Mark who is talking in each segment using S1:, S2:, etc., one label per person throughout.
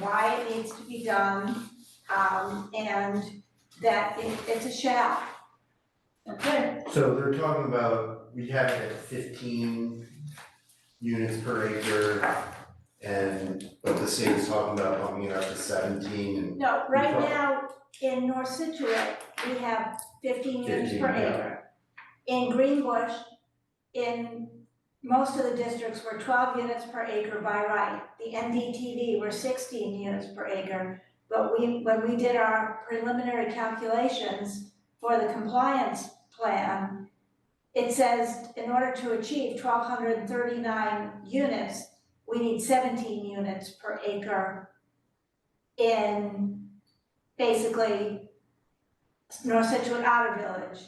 S1: why it needs to be done, um, and that it, it's a shall.
S2: Okay.
S3: So they're talking about, we have it at fifteen units per acre. And, but the state is talking about bumping it up to seventeen and,
S1: No, right
S3: Okay.
S1: now, in North Situate, we have fifteen units
S3: 15,
S1: per
S3: yeah.
S1: acre. In Greenbush, in most of the districts, we're twelve units per acre by right. The NDTV, were sixteen units per acre. But we, when we did our preliminary calculations for the compliance plan, it says in order to achieve twelve hundred and thirty-nine units, we need seventeen units per acre in basically North Situate Outer Village,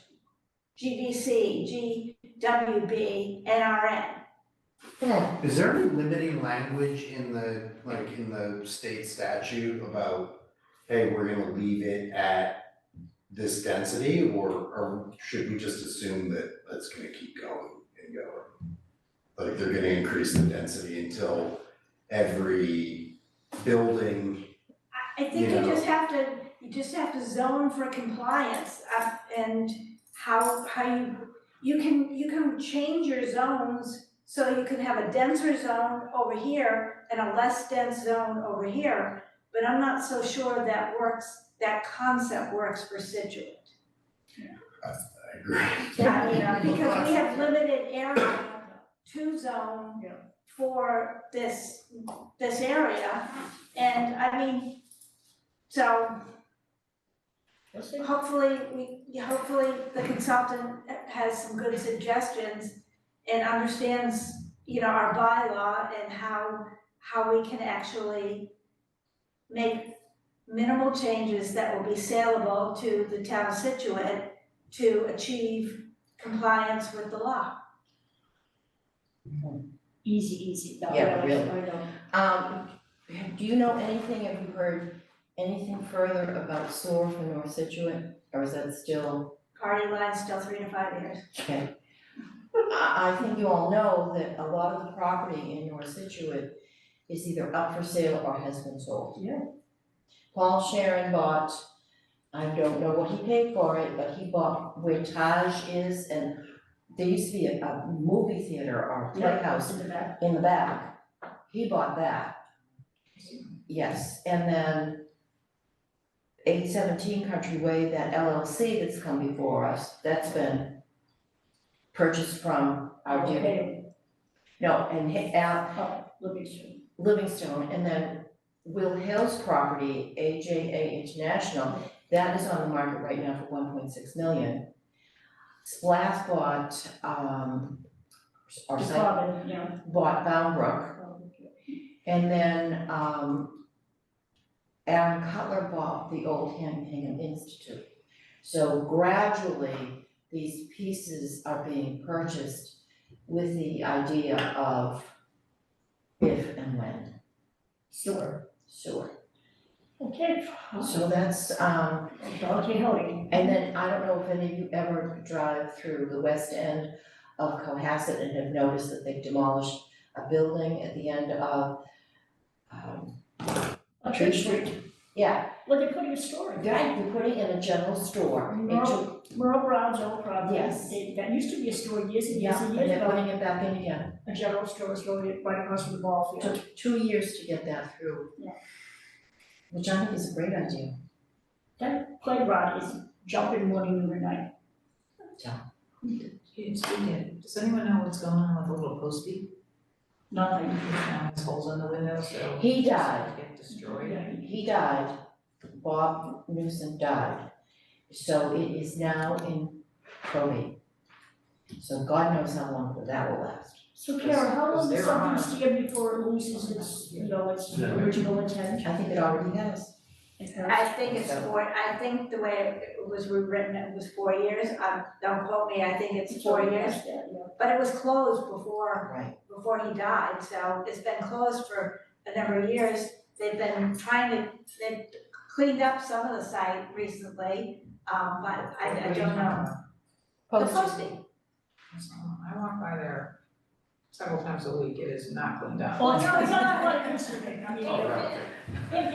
S1: GDC, GWB, NRN.
S3: is there any limiting language in the, like, in the state statute about, hey, we're gonna leave it at this density, or, or should we just assume that that's gonna keep going and going? Like, they're gonna increase the density until every building
S1: I I think you
S3: Yeah.
S1: just have to, you just have to zone for compliance uh, and how, how you, you can, you can change your zones so you can have a denser zone over here and a less dense zone over here, but I'm not so sure that works, that concept works for Situate.
S3: I agree.
S1: Yeah, you know, because we have limited area to zone
S2: Yeah.
S1: for this, this area. And I mean, so hopefully, we, hopefully the consultant has some good suggestions and understands, you know, our bylaw and how, how we can actually make minimal changes that will be saleable to the town of Situate to achieve compliance with the law.
S4: Easy, easy, that
S2: Yeah,
S4: way,
S2: really.
S4: I know.
S2: Um, do you know anything, have you heard anything further about SOAR for North Situate, or is that still,
S1: Party line's still three to five years.
S2: okay? I, I think you all know that a lot of the property in North Situate is either up for sale or has been sold.
S4: Yeah.
S2: Paul Sharon bought, I don't know what he paid for it, but he bought where Taj is, and there used to be a, a movie theater or
S4: Yeah.
S2: playhouse
S4: in the back.
S2: in the back. He bought that. Yes, and then eight seventeen Country Way, that LLC that's come before us, that's been purchased from our dear,
S4: Okay,
S2: no, and he- Al
S4: oh, Livingston.
S2: Livingstone, and then Will Hill's property, AJA International, that is on the market right now for one point six million. Splash bought, um, or
S4: It's
S2: Site-
S4: common, yeah. Oh,
S2: bought Bound Brook. And then um Aaron Cutler bought the old Hingham Institute. So gradually, these pieces are being purchased with the idea of if and when
S4: Sure.
S2: sewer.
S4: Okay.
S2: So that's um,
S4: Don Quixote.
S2: and then I don't know if any of you ever drive through the west end of Cohasset and have noticed that they demolished a building at the end of um,
S4: A
S2: Tree
S4: trick
S2: Street. Yeah,
S4: Well, they put in a store.
S2: Right, you're putting in a general store, it took,
S4: Merle, Merle Brown's old property.
S2: Yes.
S4: They- That used to be a store years and years
S2: yeah,
S4: and
S2: and
S4: years
S2: they're
S4: ago.
S2: putting it back in again,
S4: A general store was going right across from the ball
S2: it
S4: field.
S2: took two years to get that through.
S4: Yeah.
S2: Which I think is a great idea,
S4: That playground is jumping morning noon and night.
S5: James, we did. Does anyone know what's going on with the little postie?
S4: Nothing.
S5: Now it's holes in the window, so.
S2: He
S5: it's
S2: died.
S5: gonna Get destroyed.
S2: he died, Bob Newsom died, so it is now in probate. So God knows how long that will last.
S4: So Kara, how
S5: Because
S4: long
S5: they
S4: does
S5: were on.
S4: something stand before it loses its, you know, its
S3: Yeah.
S4: original intent?
S2: I think it already has,
S1: I think it's four, I think the way it was rewritten, it was four years, um, don't quote me, I think it's four years.
S4: Yeah, yeah.
S1: But it was closed before,
S2: right,
S1: before he died, so it's been closed for a number of years. They've been trying to, they've cleaned up some of the site recently, um, but I, I don't know. The
S2: posted,
S1: posting,
S5: So, I walk by there
S6: several times a week, it is not cleaned up.
S4: 哦
S5: Well, it's not, it's not like conserving, I mean,
S4: Oh, right, okay.
S5: it- it-